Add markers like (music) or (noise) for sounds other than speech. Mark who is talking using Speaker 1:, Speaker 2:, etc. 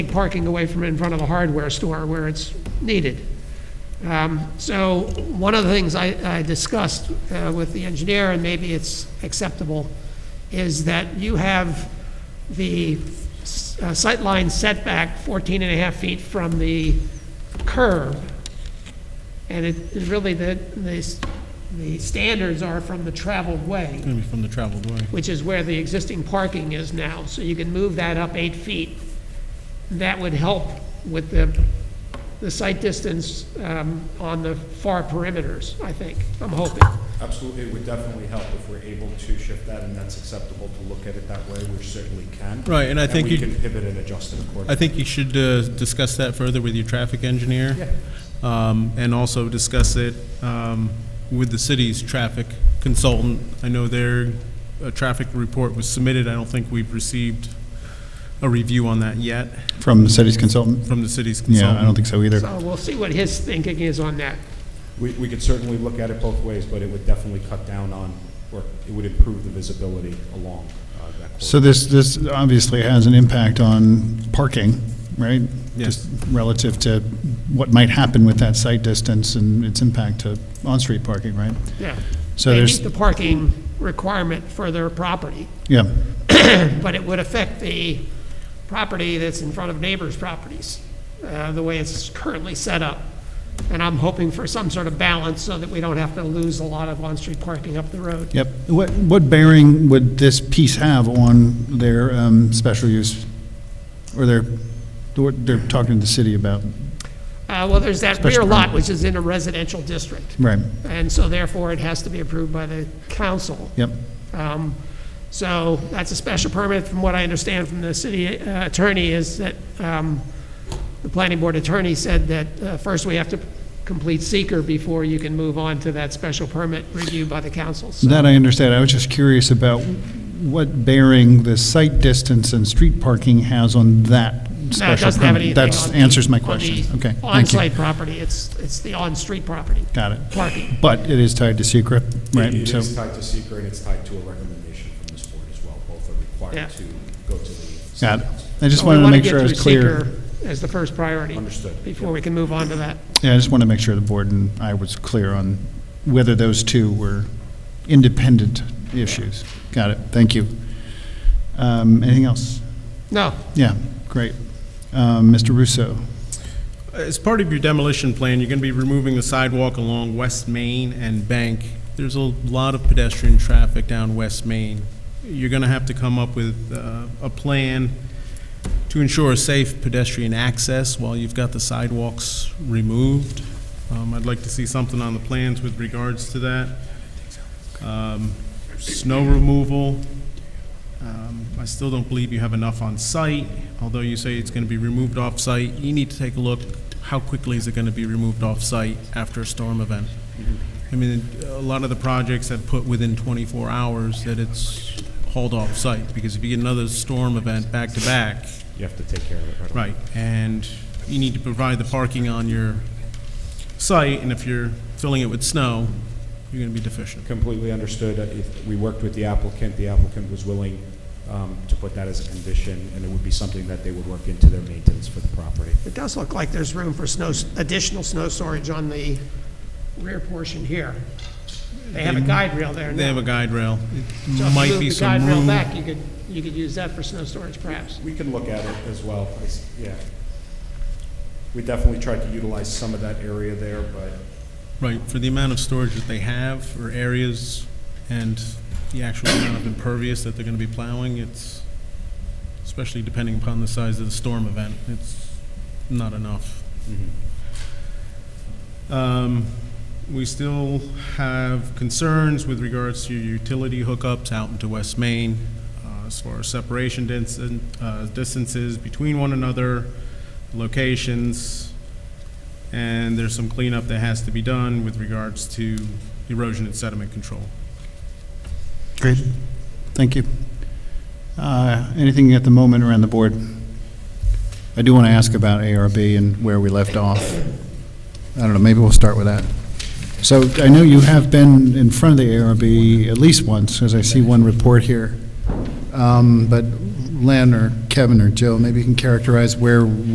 Speaker 1: take parking away from in front of a hardware store where it's needed. Um, So one of the things I I discussed uh, with the engineer, and maybe it's acceptable, is that you have the s- uh, sightline setback 14 and a half feet from the curb. And it is really the, the s- the standards are from the traveled way
Speaker 2: Going to be from the traveled way.
Speaker 1: which is where the existing parking is now, so you can move that up eight feet. That would help with the, the site distance um, on the far perimeters, I think, I'm hoping.
Speaker 3: Absolutely, it would definitely help if we're able to shift that, and that's acceptable to look at it that way, which certainly can.
Speaker 2: Right, and I think
Speaker 3: we
Speaker 2: you-
Speaker 3: can pivot and adjust it accordingly.
Speaker 2: I think you should uh, discuss that further with your traffic engineer. Um, And also discuss it um, with the city's traffic consultant. I know their uh, traffic report was submitted. I don't think we've received a review on that yet
Speaker 4: From the city's consultant?
Speaker 2: from the city's consultant.
Speaker 4: Yeah, I don't think so either.
Speaker 1: So we'll see what his thinking is on that.
Speaker 3: We, we could certainly look at it both ways, but it would definitely cut down on, or it would improve the visibility along uh, that corridor.
Speaker 4: So this, this obviously has an impact on parking, right?
Speaker 2: Yes.
Speaker 4: Just Relative to what might happen with that site distance and its impact to on-street parking, right?
Speaker 1: Yeah.
Speaker 4: So
Speaker 1: They
Speaker 4: there's-
Speaker 1: meet the parking requirement for their property,
Speaker 4: Yeah,
Speaker 1: (coughs) but it would affect the property that's in front of neighbors' properties, uh, the way it's currently set up. And I'm hoping for some sort of balance so that we don't have to lose a lot of on-street parking up the road.
Speaker 4: yep. What, what bearing would this piece have on their um, special use? Or their, what they're talking to the city about,
Speaker 1: Uh, Well, there's that
Speaker 4: Special
Speaker 1: rear lot,
Speaker 4: permit.
Speaker 1: which is in a residential district,
Speaker 4: right,
Speaker 1: and so therefore it has to be approved by the council.
Speaker 4: yep,
Speaker 1: Um, So that's a special permit, from what I understand from the city uh, attorney, is that um, the planning board attorney said that uh, first we have to complete seeker before you can move on to that special permit review by the council. So
Speaker 4: That I understand. I was just curious about what bearing the site distance and street parking has on that
Speaker 1: no, it
Speaker 4: special
Speaker 1: doesn't have
Speaker 4: permit.
Speaker 1: anything
Speaker 4: That
Speaker 1: on the-
Speaker 4: answers my
Speaker 1: on the
Speaker 4: question. Okay, thank you.
Speaker 1: On-site property, it's, it's the on-street property,
Speaker 4: Got it.
Speaker 1: parking.
Speaker 4: But it is tied to secret,
Speaker 3: It-
Speaker 4: right?
Speaker 3: It
Speaker 4: So,
Speaker 3: is tied to secret, and it's tied to a recommendation from this board as well. Both are
Speaker 1: Yeah.
Speaker 3: required to go to the
Speaker 4: got
Speaker 3: city
Speaker 4: it.
Speaker 3: council.
Speaker 4: I just
Speaker 1: So we
Speaker 4: wanted to
Speaker 1: wanna
Speaker 4: make
Speaker 1: get
Speaker 4: sure I
Speaker 1: through
Speaker 4: was clear.
Speaker 1: seeker As the first priority.
Speaker 3: Understood, yeah.
Speaker 1: Before we can move on to that.
Speaker 4: Yeah, I just want to make sure the board and I was clear on whether those two were independent issues. Got it. Thank you. Um, Anything else?
Speaker 1: No,
Speaker 4: Yeah, great. Um, Mr. Russo?
Speaker 2: As part of your demolition plan, you're going to be removing the sidewalk along West Main and Bank. There's a lot of pedestrian traffic down West Main. You're going to have to come up with uh, a plan to ensure safe pedestrian access while you've got the sidewalks removed. Um, I'd like to see something on the plans with regards to that. Um, Snow removal, um, I still don't believe you have enough on site, although you say it's going to be removed off-site. You need to take a look, how quickly is it going to be removed off-site after a storm event? I mean, a lot of the projects have put within 24 hours that it's hauled off-site, because if you get another storm event back-to-back,
Speaker 3: You have to take care of it right away.
Speaker 2: right, and you need to provide the parking on your site, and if you're filling it with snow, you're going to be deficient.
Speaker 3: Completely understood. Uh, if- We worked with the applicant. The applicant was willing um, to put that as a condition, and it would be something that they would work into their maintenance for the property.
Speaker 1: It does look like there's room for snow, additional snow storage on the rear portion here. They have a guide rail there now.
Speaker 2: They have a guide rail.
Speaker 1: So
Speaker 2: It
Speaker 1: if you
Speaker 2: might
Speaker 1: move
Speaker 2: be
Speaker 1: the guide
Speaker 2: some
Speaker 1: rail
Speaker 2: room.
Speaker 1: back, you could, you could use that for snow storage perhaps.
Speaker 3: We can look at it as well, I s- yeah. We definitely tried to utilize some of that area there, but
Speaker 2: Right, for the amount of storage that they have, or areas, and the actual amount of impervious that they're gonna be plowing, it's, especially depending upon the size of the storm event, it's not enough. Um, We still have concerns with regards to your utility hookups out into West Main, uh, as far as separation dins- uh, distances between one another, locations, and there's some cleanup that has to be done with regards to erosion and sediment control.
Speaker 4: Great. Thank you. Uh, Anything at the moment around the board? I do want to ask about ARB and where we left off. I don't know, maybe we'll start with that. So I know you have been in front of the ARB at least once, as I see one report here. Um, But Len or Kevin or Joe, maybe you can characterize where